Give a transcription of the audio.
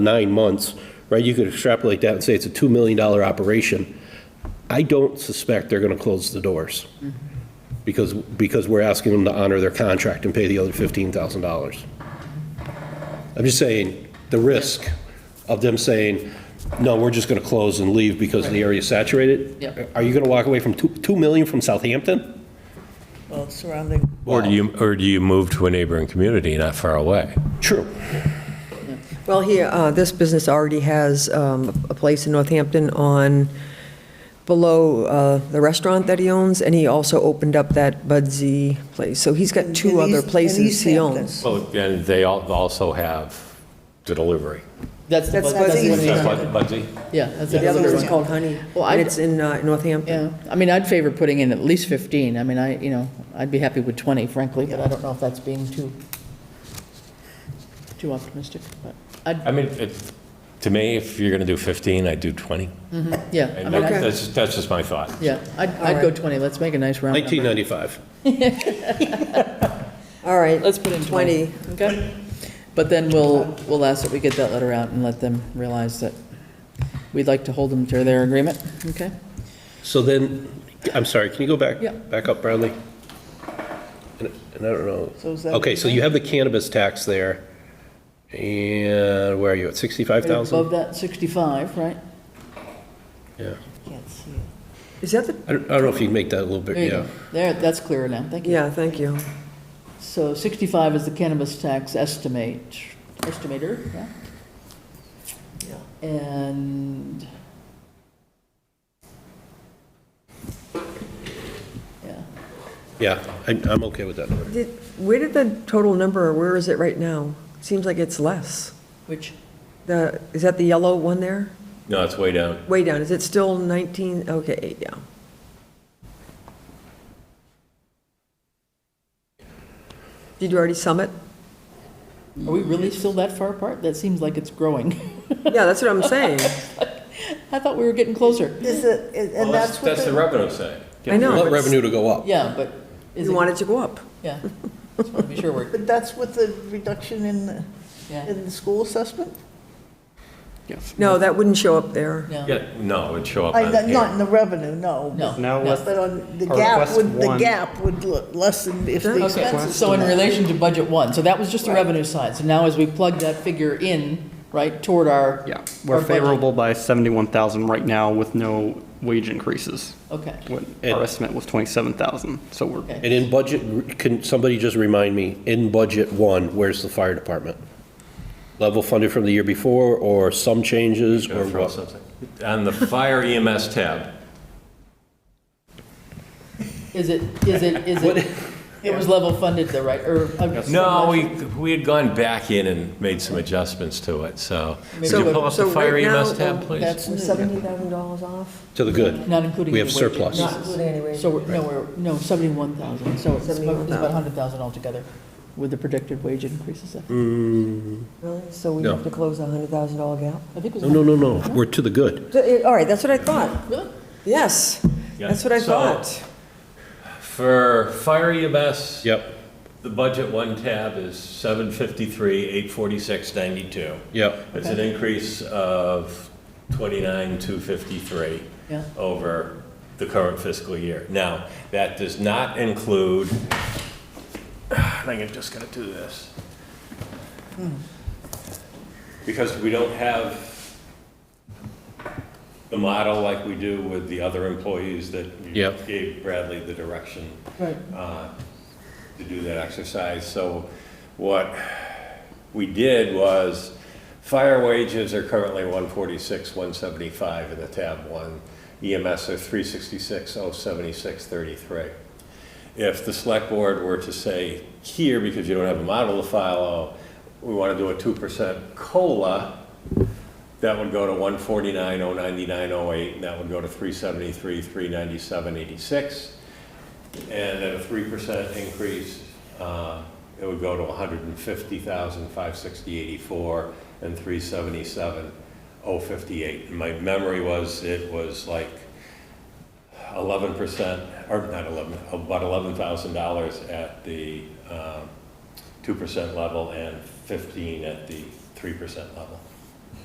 nine months, right? You could extrapolate that and say it's a $2 million operation. I don't suspect they're going to close the doors because, because we're asking them to honor their contract and pay the other $15,000. I'm just saying, the risk of them saying, no, we're just going to close and leave because the area's saturated. Yep. Are you going to walk away from 2, 2 million from Southampton? Well, surrounding, Or do you, or do you move to a neighboring community not far away? True. Well, here, uh, this business already has um, a place in Northampton on, below uh, the restaurant that he owns, and he also opened up that Budsy place. So he's got In two other East- in places East he Hampton. owns. Well, and they al- also have the delivery. That's the That's bud- that's the buzzing. one we That's started. Bud- Budsy? Yeah, that's The other another one's one. called Honey, Well, I- and it's in uh, Northampton. Yeah, I mean, I'd favor putting in at least 15. I mean, I, you know, I'd be happy with 20 frankly, but I don't know if that's being too, too optimistic, but I'd, I mean, it, to me, if you're going to do 15, I'd do 20. yeah, I And mean, that- I'd- that's, that's just my thought. yeah, I'd, I'd go 20. Let's make a nice round number. 1995. All right. Let's put in 20. Okay? But then we'll, we'll ask that we get that letter out and let them realize that we'd like to hold them to their agreement, okay? So then, I'm sorry, can you go back? Yeah. Back up, Bradley? And and I don't know. So is that- Okay, so you have the cannabis tax there, and where are you, at 65,000? Above that 65, right? Yeah. can't see it. Is that the, I don't I don't know if you can make that a little bit, There you yeah. go. There, that's clearer now, thank you. yeah, thank you. So 65 is the cannabis tax estimate, estimator, yeah? And... Yeah, Yeah, I- I'm okay with that number. Did- Where did the total number, or where is it right now? Seems like it's less. which, The, is that the yellow one there? No, it's way down. Way down, is it still 19, okay, yeah. Did you already sum it? are we really still that far apart? That seems like it's growing. Yeah, that's what I'm saying. I thought we were getting closer. Is it, is- and that's what the the, revenue side. I know, Want but revenue to go up. Yeah, but is you it, want it to go up. yeah. Just want to be sure we're, but that's with the reduction in, the- yeah. in the school assessment? No, that wouldn't show up there. No, Yeah, no, it'd show up I, on not here. in the revenue, no. no. Now let's, But on, the Or gap request would, the one. gap would l- lessen if the Okay. Okay, expenses. so in went up. relation to budget one, so that was just the revenue side. So now as we plug that figure in, right, toward our. yeah, our we're budget. favorable by 71,000 right now with no wage increases. Okay. What And- our estimate was 27,000, so we're, Okay. And in budget, can somebody just remind me, in budget one, where's the fire department? Level funded from the year before, or some changes, or Throw what? something. On the fire EMS tab, Is it, is it, is it, it was level funded though, right, or? uh, no, we, we had gone back in and made some adjustments to it, so. Would you So- pull up the so fire right now, EMS um, tab, please? That's We're $70,000 off? To the good. not including. We the have wages. surplus. Not including- So, we're- no, we're, no, seventy-one thousand, so it's about- it's about 71,000. hundred thousand altogether with the predicted wage increases. I Really? So we No. have to close a $100,000 gap? think it No, was, no, no, no, we're to the good. So, eh, All right, that's what I thought. really? Yes, Yeah. that's what I So- thought. For fire E EMS, Yep, the budget one tab is 753, 846.92. yep. It's an increase of 29,253 Yeah. over the current fiscal year. Now, that does not include, I think I'm just going to do this. Because we don't have the model like we do with the other employees that you Yep. gave Bradley the direction uh, Right. to do that exercise. So what we did was, fire wages are currently 146, 175 in the tab one. EMS are oh 366, 076, 33. If the select board were to say here, because you don't have a model to follow, we want to do a 2% COLA, that would go to oh, 149, 099, 08, and that would go to 373, 397, 86. And at a three percent increase, uh, it would go to 150,560.84 and three seventy-seven, oh fifty-eight. And my memory was, it was like eleven percent, or not eleven, about eleven thousand dollars at the, um, two percent level and fifteen at the three percent level.